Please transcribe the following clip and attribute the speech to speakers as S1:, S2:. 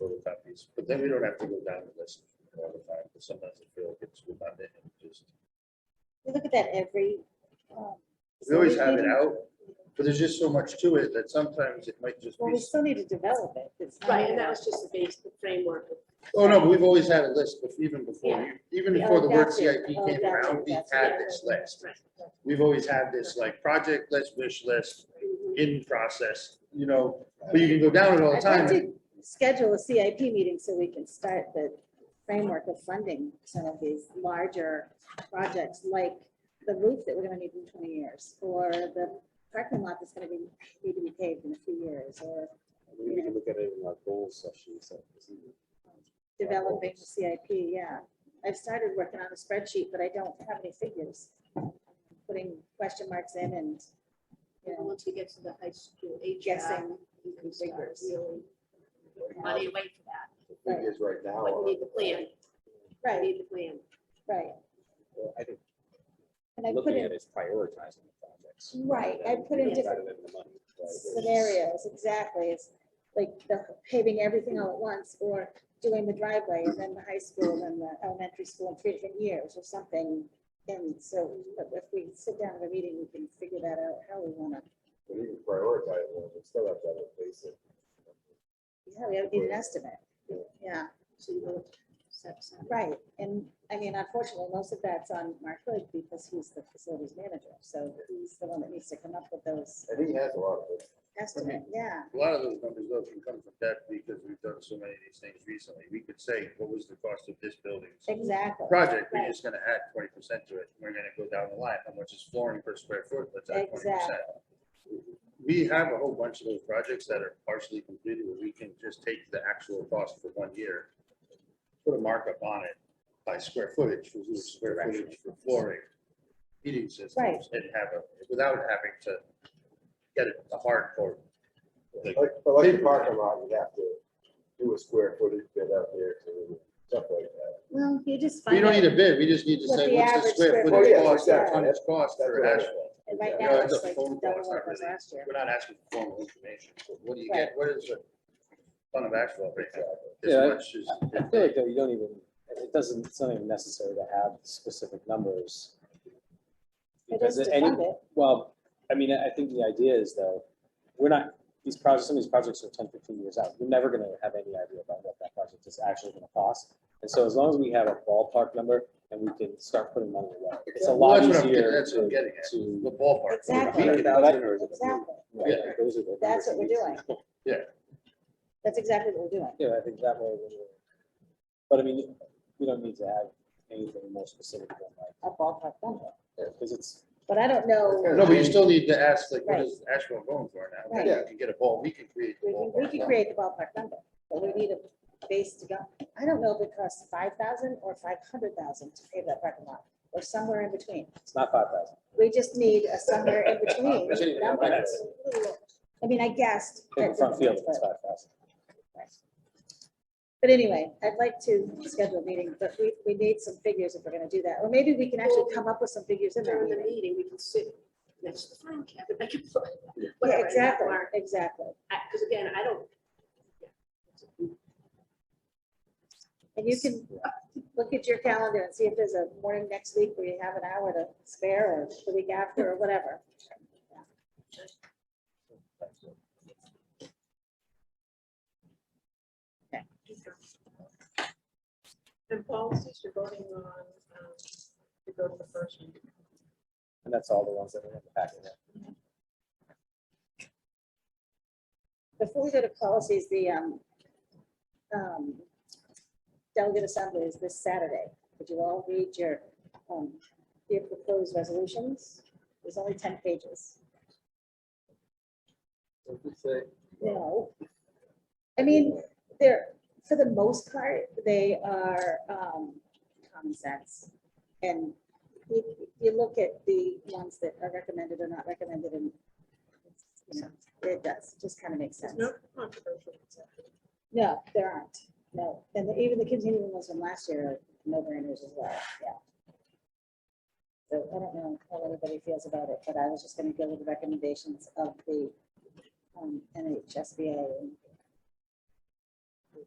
S1: photocopies, but then we don't have to go down the list all the time, because sometimes I feel it gets redundant and just.
S2: We look at that every. um,
S1: We always have it
S2: facility
S1: out, but there's just so much to it that sometimes it might just
S2: Well, we
S1: be,
S2: still need to develop it. It's not-
S3: Right, and that was just the base, the framework. of-
S1: oh no, but we've always had a list, bef- even before,
S3: Yeah.
S1: you- even
S2: Yeah,
S1: before the word
S2: that's it.
S1: CIP
S2: Oh,
S1: came
S2: that's
S1: around,
S2: it,
S1: we
S2: that's
S1: had
S2: it.
S1: this list.
S3: Right.
S1: We've always had this like project list, wish list,
S3: Mhm.
S1: in process, you know, but you can go down it all the
S2: I'd like
S1: time.
S2: to schedule a CIP meeting so we can start the framework of funding some of these larger projects, like the roof that we're gonna need in twenty years, or the parking lot that's gonna be, need to be paved in a few years, or
S4: We can look at it in our goals session, so. it's easy.
S2: developing the CIP, yeah. I've started working on a spreadsheet, but I don't have any figures. Putting question marks in and, you
S3: And
S2: know,
S3: Once we get to the high school age.
S2: Guessing
S3: You can figure
S2: figures.
S3: really. put Money away for that,
S4: The thing is right now.
S3: but you need the plan, you
S2: right,
S3: need the plan.
S2: right.
S4: Well, uh, I think
S2: And I put
S4: looking
S2: in,
S4: at it is prioritizing the projects.
S2: right, I put in different
S4: Rather than the money, right?
S2: scenarios, exactly, it's like the paving everything all at once, or doing the driveway, and then the high school, and the elementary school in three different years, or something. And so, but if we sit down at a meeting, we can figure that out, how we wanna,
S4: We need to prioritize, well, we still have to have a basic.
S2: yeah, we have to need an estimate. Yeah,
S3: So you know, set aside.
S2: right, and, I mean, unfortunately, most of that's on Mark Hood, because he's the facilities manager, so he's the one that needs to come up with those
S4: And he has a lot of it.
S2: estimate, yeah.
S1: A lot of those numbers though can come from that because we've done so many of these things recently. We could say, what was the cost of this building's
S2: Exactly.
S1: project? We're
S2: Right.
S1: just gonna add twenty percent to it. We're gonna go down the line. How much is flooring per square foot? Let's add twenty percent. We have a whole bunch of those projects that are partially completed where we can just take the actual cost for one year, put a markup on it by square footage, for each square footage for flooring, heating
S2: Right.
S1: systems, and have a, without having to get it a hard code. Like,
S4: Like, but like the parking lot, you have to do a square footage bit out there to stuff like that.
S2: Well, you just find
S1: We
S2: out.
S1: don't need a bid, we just need to
S2: What
S1: say
S2: the
S1: what's the
S2: average
S1: square
S2: square
S4: footage
S1: footage
S4: is.
S1: cost,
S4: Yeah,
S1: or
S4: yeah.
S1: tonnage cost
S4: That's
S1: for
S4: what I-
S1: asphone.
S2: And right
S4: Yeah,
S2: now,
S1: it's
S2: it's
S1: a
S2: like
S1: phone call,
S2: double
S1: it's
S2: what
S1: not
S2: it was
S1: really-
S2: last year.
S1: We're not asking for formal information, but what do you get, what is a ton of asphalt right now? This
S5: Yeah.
S1: much is-
S5: I feel like that you don't even, it doesn't, it's not even necessary to have specific numbers.
S2: It is
S5: Because
S2: to
S5: any,
S2: fund it.
S5: well, I mean, I think the idea is though, we're not, these projects, some of these projects are 10, 15 years out. You're never gonna have any idea about what that project is actually gonna cost. And so as long as we have a ballpark number and we can start putting money away, it's a
S1: Well,
S5: lot
S1: that's what I'm getting-
S5: easier.
S1: That's what I'm
S5: to-
S1: getting at,
S5: To,
S1: the ballpark.
S2: Exactly.
S1: We can-
S4: or is it a million?
S2: Exactly.
S5: right,
S1: Yeah.
S5: those are the
S2: That's
S5: numbers
S2: what
S5: we
S2: we're
S5: need to
S2: doing.
S5: know.
S2: That's exactly what we're doing.
S5: Yeah, I think that way, we will- but I mean, we don't need to have anything more specific than like,
S2: A ballpark number.
S5: Because it's,
S2: But I don't know.
S1: No, but you still need to ask, like, what
S2: Right.
S1: is asphalt going for now?
S2: Right.
S1: Then You can get a ball, we can create the
S2: We can,
S1: ballpark.
S2: we can
S1: now.
S2: create the ballpark number, but we need a base to go. I don't know if it costs five thousand or five hundred thousand to pave that parking lot, or somewhere in between.
S5: it's not five thousand.
S2: We just need a somewhere in
S5: We shouldn't
S2: between.
S5: even have
S2: number.
S5: that.
S2: I mean, I guessed.
S5: In the
S2: at
S5: front field,
S2: different
S5: it's
S2: ones,
S5: five thousand.
S2: But but anyway, I'd like to schedule a meeting, but we, we need some figures if we're gonna do that, or maybe we can actually come up with some figures in there.
S3: During the meeting, we can sit next to the phone cabinet, I can.
S2: Yeah,
S3: whatever,
S2: exactly,
S3: mark.
S2: exactly.
S3: Because again, I don't.
S2: And you can look at your calendar and see if there's a morning next week where you have an hour to spare or the week after or whatever.
S3: And policies you're voting on, um, to go to the first one.
S5: And that's all the ones that are in the packet. yeah.
S2: Before we go to policies, the um, um, delegate assembly is this Saturday. Would you all read your, um, your proposed resolutions? There's only ten pages. No. I mean, they're, for the most part, they are um, common sense. And you, you look at the ones that are recommended or not recommended and it's, you know, it does, just kind of makes sense.
S3: No controversial.
S2: No, there aren't. No. And the- even the continuing ones from last year are no brainers as well. Yeah. So I don't know how everybody feels about it, but I was just going to go with the recommendations of the um, NHSBA and